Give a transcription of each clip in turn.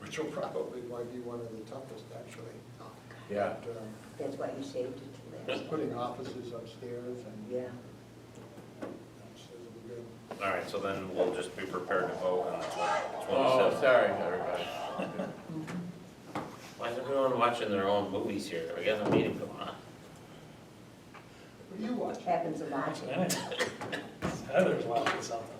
which will probably why be one of the toughest, actually. Yeah. And, um, That's why you saved it to Just last. putting offices upstairs and. Yeah, That's- that'll be good. All right, so then we'll just be prepared to vote on the Oh, twenty-seventh. sorry, everybody. Why is everyone watching their own movies here? We got a meeting going on. What do you watch? happens a lot. Heather's watching something.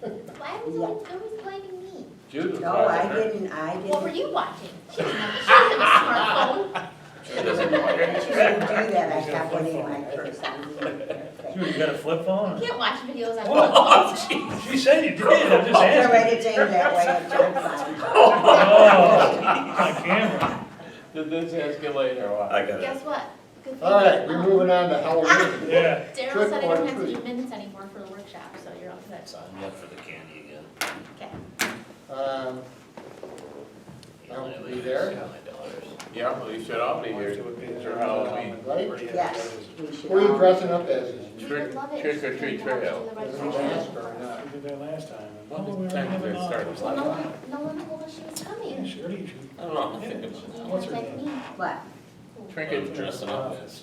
Why was it always blaming me? Jude was No, watching Oh, I her. didn't, I didn't. What were you watching? She doesn't have a smartphone. She doesn't know She it. didn't do that, I got one in my purse. I didn't even care. Jude, you got a flip You phone? can't watch videos on your Oh, phone. jeez. She said you did, I'm just It's asking. already changed that way, I told Bob. Oh, on camera. Did this escalate or what? I got it. Guess what? Good thing All right, you- we're um, moving on to Ah! Halloween. Yeah. Daryl said I don't have to do Trick minutes anymore for the workshop, so you're all set. So I'm up for the candy again. Okay. Um, Oh, I'll be there. Yeah, well, you should all be here. It's your Halloween. Right? Yes, we should. Who are you all- dressing up as? Is We Trick- would love it. trick if or you treat came over to trail. the it registration a mask or not? We did that last time. and- Well, Oh, we it's time already have to an start office. with one. No one, no one told us she was Yeah, coming. sure you should. I don't know, I'm thinking about that. What's Just her like name? me. What? Trinket. I'm dressing up as.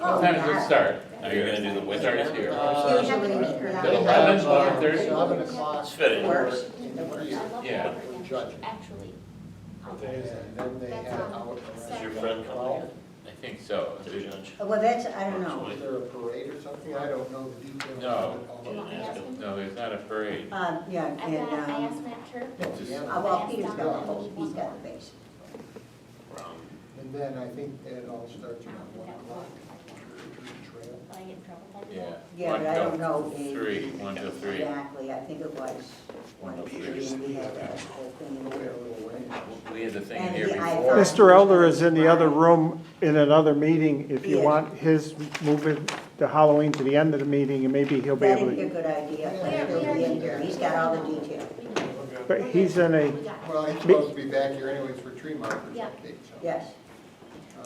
Oh, What time does it start? Are you gonna do the winter Starts here. Uh, Usually meet around Eleven, eleven, uh, thirty? Eleven o'clock. It's fitting. Works. In here. I love Yeah. her again. Judge. Actually. What day is And then they That's um, had on out Is around. your friend coming twelve. I think so. in? The judge. Well, that's, I don't know. Is there a parade or something? I don't know the details. No. of it all. Didn't ask him. No, there's not a parade. Um, yeah, I and, got, I um, asked Matt Turp. No, the animal. uh, well, Peter's got the whole, he's got the base. Wrong. And then I think it all starts I around don't one think that o'clock. Trail. Will I get in trouble by doing Yeah. that? Yeah, but I don't know the- Three, one to three. Exactly, I think it was one of three, and we had that whole Go away a thing. little way. We had the thing And here the- I before. thought- Mr. Elder is in the other room in another meeting. If you Yes. want his, move it to Halloween to the end of the meeting, and maybe he'll be able That'd be a to. good idea, Yeah. he'll be in here, he's got all the details. We did. But he's in a, We got it. Well, he's supposed to be back here anyways for tree markers Yeah. update, so. Yes,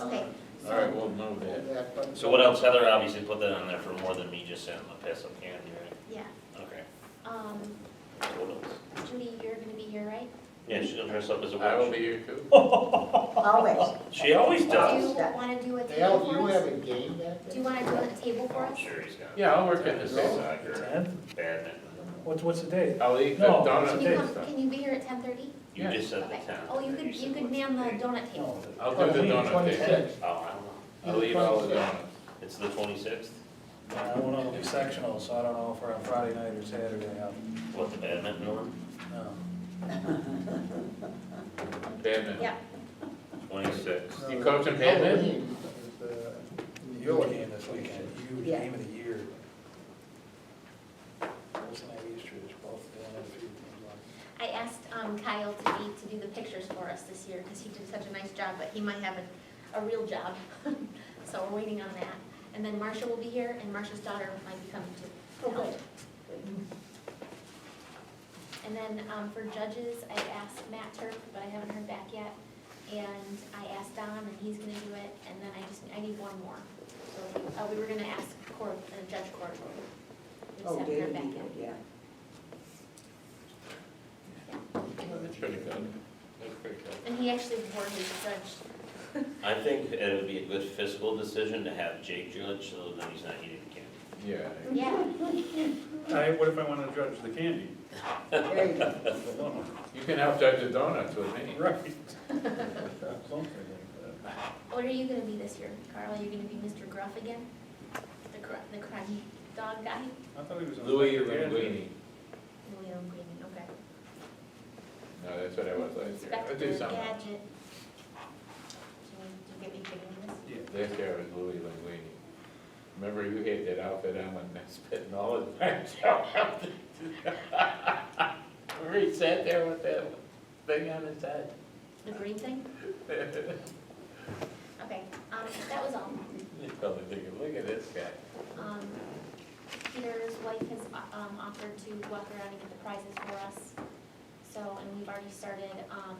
uh, Okay, All right, we'll move that. that, but- So what else? Heather obviously put that on there for more than me just saying I'm gonna pass up candy, right? yeah, Okay. um, So What else? Judy, you're gonna be here, right? Yeah, she's gonna dress up as a I will be witch. here too. Oh. always. She always Do does. you wanna do a table Al, do you for have us? a game back Do there? you wanna do a table for I'm us? sure he's got. Yeah, I'll work in the same. Soccer, Ten? badminton. What's, what's the date? I'll eat the No, it's donut Can you and come, stuff. can you be here at ten thirty? You just said the ten. Oh, you could, you could man the donut table. I'll do the donut thing. Twenty-six. Oh, I don't know. I'll eat all the donuts. It's the twenty-sixth? I don't know, it'll be sectional, so I don't know if we're on Friday night or Saturday. I'll- What, the badminton one? no. Badminton. Yeah, Twenty-sixth. You coaching badminton? Halloween is, uh, in the Huge village. game this weekend, huge Yeah. game of the year. Wilson and East Ridge, both doing a few things like I asked um, Kyle to be, to do the pictures for us this year, because he did such a nice job, but he might have a, a real job. So we're waiting on that. And then Marcia will be here, and Marcia's daughter might be coming Oh, too. to help. And then um, for judges, I asked Matt Turp, but I haven't heard back yet. And I asked Don, and he's gonna do it, and then I just, I need one more. So, uh, we were gonna ask court, uh, Judge Court. We just Oh, haven't David, heard back you yet. could, yeah. That's pretty good. That's pretty good. And he actually wore his judge I think it would be a good fiscal decision to have Jake judge, so that he's not eating candy. Yeah. Yeah, Hey, what if I want to judge the candy? There you go. You can help judge the donuts with me. Right. Something like that. what are you gonna be this year, Carl? Are you gonna be Mr. Gruff again? The cr- the crime dog guy? I thought he was. on- Louis Linguini. Leo Green, okay. No, that's what I was last year. I Spectacle, do something. gadget. Do you, do you get me kidding this? Yeah. Last year was Louis Linguini. Remember you had that outfit on when I spit and all his brains out? Remember he sat there with that thing on his head? The green thing? Okay, um, that was all. You probably thinking, look at this guy. Um, Peter's wife has, uh, um, offered to walk around and get the prizes for us. So, and we've already started, um,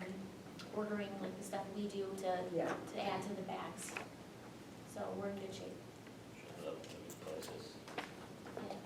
ordering like the stuff we do to Yeah. to add to the bags. So we're in good shape. Shut up, give me places.